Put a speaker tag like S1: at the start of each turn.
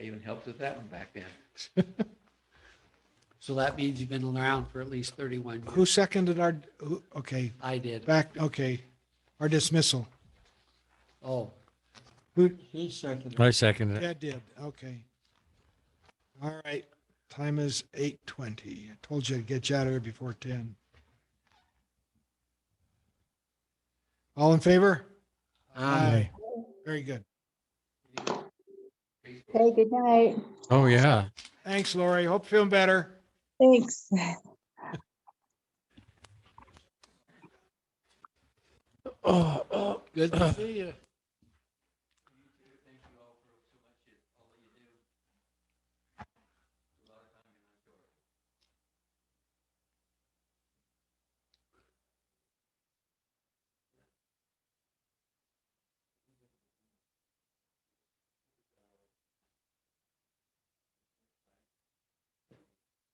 S1: even helped with that one back then.
S2: So that means you've been around for at least 31 years.
S3: Who seconded our, who- okay,
S2: I did.
S3: back, okay, our dismissal?
S2: Oh,
S3: Who,
S2: he seconded.
S4: I second it.
S3: Chad did, okay. All right, time is 8:20. I told you I'd get you out of here before 10. All in favor? Aye. Very good.
S5: Okay, good night.
S4: Oh, yeah.
S3: Thanks, Lori. Hope you're feeling better.
S5: Thanks.
S4: Oh, oh.
S2: Good to see you.